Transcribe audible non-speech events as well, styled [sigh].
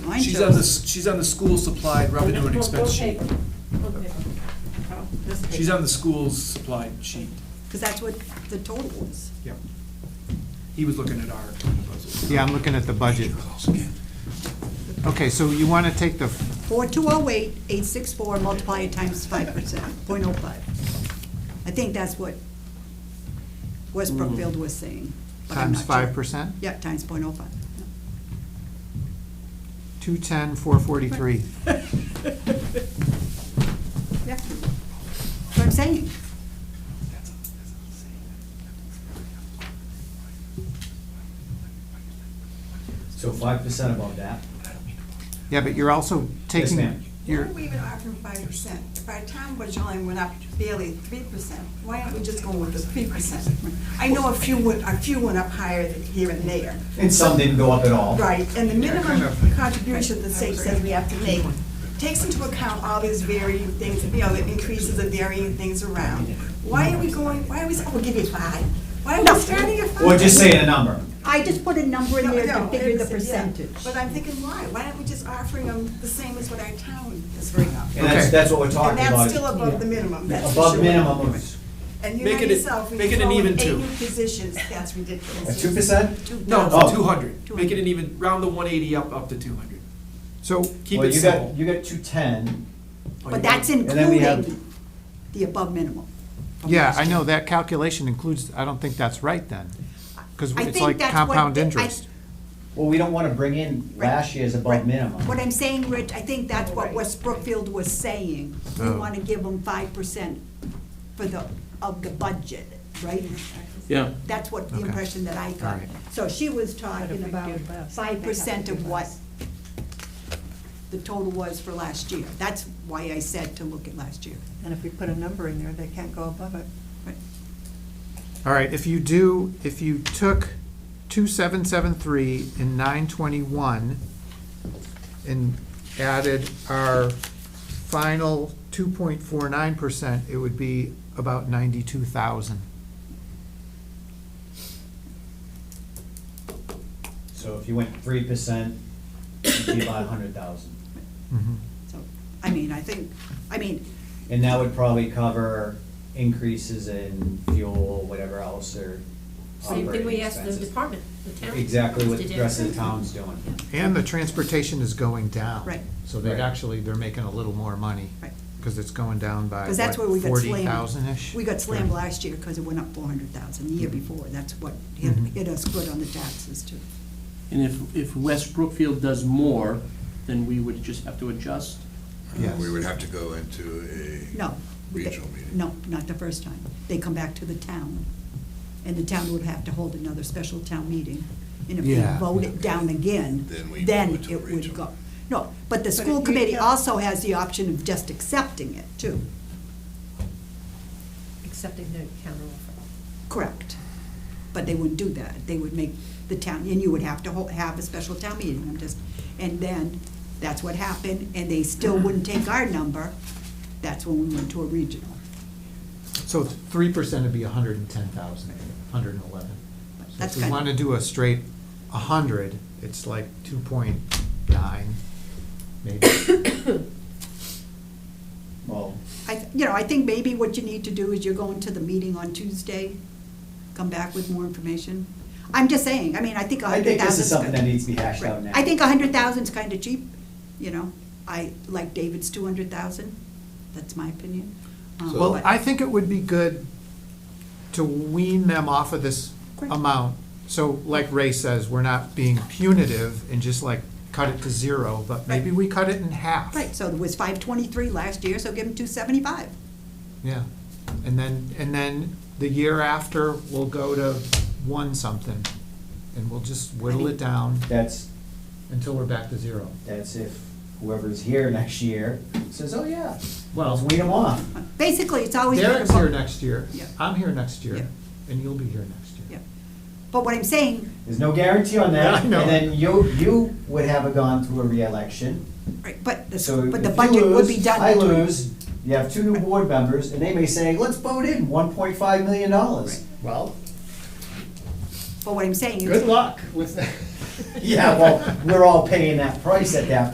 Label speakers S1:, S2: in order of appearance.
S1: mine
S2: She's on the,
S1: shows.
S2: s- she's on the school supplied revenue and expense sheet. She's on the school's supplied sheet.
S1: Because that's what the total was.
S2: Yep. He was looking at our proposal.
S3: Yeah, I'm looking at the budget. Okay, so you want to take the,
S1: Four two oh eight, eight six four, multiply it times five percent, point oh five. I think that's what West Brookfield was saying. but I'm
S3: times
S1: not sure.
S3: 5%?
S1: Yeah, times point oh five.
S3: 210, 443.
S1: Yeah. That's what I'm saying.
S4: So five percent above that?
S3: Yeah, but you're also taking.
S4: ma'am.
S5: Why
S3: You're,
S5: are we even offering five percent? If our town budget only went up barely three percent, why aren't we just going with the three percent? I know a few went, a few went up higher than here and there.
S4: And some didn't go up at all?
S5: Right, and the minimum contribution the state says we have to make takes into account all these varying things, you know, the increases and varying things around. Why are we going, why are we, oh, we'll give you five? Why are we starting at five?
S4: Or just saying a number?
S1: I just put a number in
S5: No,
S1: there to
S5: no,
S1: figure the
S5: it's- yeah.
S1: percentage.
S5: But I'm thinking, why? Why aren't we just offering them the same as what our town is bringing up?
S4: And that's,
S3: Okay.
S4: that's what we're
S5: And
S4: talking about.
S5: that's still above the minimum, that's for
S4: Above
S5: sure.
S4: minimum of,
S5: And you know
S2: Make it a-
S5: yourself, when
S2: make
S5: you
S2: it an
S5: throw in
S2: even
S5: eight
S2: two.
S5: new positions, that's ridiculous.
S4: at two percent?
S2: No,
S4: Oh.
S2: two hundred. Make it an even, round the one eighty up, up to two hundred.
S3: so,
S2: Keep
S4: Well,
S2: it
S4: you got-
S2: simple.
S4: You got two ten,
S2: Oh,
S1: But
S2: yeah.
S1: that's
S4: And then we have-
S1: including the above minimum.
S3: yeah, I know, that calculation includes, I don't think that's right then. Because
S1: I
S3: it's
S1: think
S3: like
S1: that's what
S3: compound
S1: the- I-
S3: interest.
S4: well, we don't wanna bring in
S1: Right.
S4: last year's above
S1: Right.
S4: minimum.
S1: What I'm saying, Rich, I think that's what West Brookfield was saying. We
S3: Oh.
S1: want to give them five percent for the, of the budget, right?
S6: Yeah.
S1: That's what the
S3: Okay.
S1: impression that I got.
S3: Alright.
S1: So she was talking about five percent of what the total was for last year. That's why I said to look at last year.
S7: And if we put a number in there, they can't go above it.
S1: Right.
S3: All right, if you do, if you took 2773 and 921 and added our final 2.49%, it would be about 92,000.
S4: So if you went three percent, it'd be about a hundred thousand.
S3: Mhm.
S1: So, I mean, I think, I mean,
S4: And that would probably cover increases in fuel, whatever else, or
S8: Same thing
S4: operating
S8: we asked the
S4: expenses.
S8: department, the town.
S4: Exactly what
S8: to
S4: the
S8: do.
S4: rest of the town's doing.
S3: And the transportation is going down.
S1: Right.
S3: So they're
S4: Right.
S3: actually, they're making a little more money.
S1: Right.
S3: Because it's going down by,
S1: Because that's where we
S3: what,
S1: got
S3: forty
S1: slammed.
S3: thousand-ish? Mm-hmm.
S1: We got slammed last year because it went up four hundred thousand the year before. That's what hit,
S3: Mhm.
S1: hit us good on the taxes too.
S6: And if, if West Brookfield does more, then we would just have to adjust.
S3: Yes.
S9: We would have to go into a.
S1: No. they-
S9: Regional meeting.
S1: No, not the first time. They come back to the town, and the town would have to hold another special town meeting. And if they
S3: Yeah.
S1: vote it down again,
S9: Then we
S1: then
S9: go to
S1: it would
S9: regional.
S1: go. No, but the
S5: But
S1: school
S5: it-
S1: committee
S5: yeah.
S1: also has the option of just accepting it too.
S8: Accepting the counteroffer.
S1: Correct. But they wouldn't do that. They would make the town, and you would have to ho- have a special town meeting, I'm just, and then, that's what happened, and they still wouldn't take our number. That's when we went to a regional.
S3: So three percent would be a hundred and ten thousand, hundred and eleven. So
S1: That's
S3: if we
S1: kind of-
S3: want to do a straight a hundred, it's like two point nine,
S1: [coughs]
S3: maybe.
S4: Well,
S1: I, th- you know, I think maybe what you need to do is you're going to the meeting on Tuesday, come back with more information. I'm just saying, I mean, I think a
S4: I
S1: hundred thousand.
S4: think this is something that needs to be hashed out now.
S1: I think a hundred thousand's kind of cheap, you know, I, like David's two hundred thousand, that's my opinion. Um,
S3: Well,
S1: but-
S3: I think it would be good to wean them off of this
S1: Correct.
S3: amount. So like Ray says, we're not being punitive and just like cut it to zero, but maybe
S1: Right.
S3: we cut it in half.
S1: Right, so it was five twenty-three last year, so give them two seventy-five.
S3: Yeah, and then, and then the year after, we'll go to one something, and we'll just whittle it down
S4: That's,
S3: until we're back to zero.
S4: that's if whoever's here [laughs] next year says, oh yeah,
S3: Well-
S4: let's weed them off.
S1: Basically, it's always. been
S3: Derek's
S1: about-
S3: here next year,
S1: Yeah.
S3: I'm here next year,
S1: Yeah.
S3: and you'll be here next year.
S1: Yeah. But what I'm saying,
S4: There's no guarantee on
S3: Yeah, [laughs]
S4: that.
S3: I know.
S4: And then you, you would have a gone through a reelection,
S1: right, but
S4: so
S1: the,
S4: if
S1: but the
S4: you
S1: budget would be
S4: lose,
S1: done.
S4: I
S1: between-
S4: lose, you have two new board members, and they may say, let's vote in one point five million dollars.
S10: Well,
S1: But what I'm saying is.
S10: good luck with that.
S4: Yeah, well, we're all paying that price at that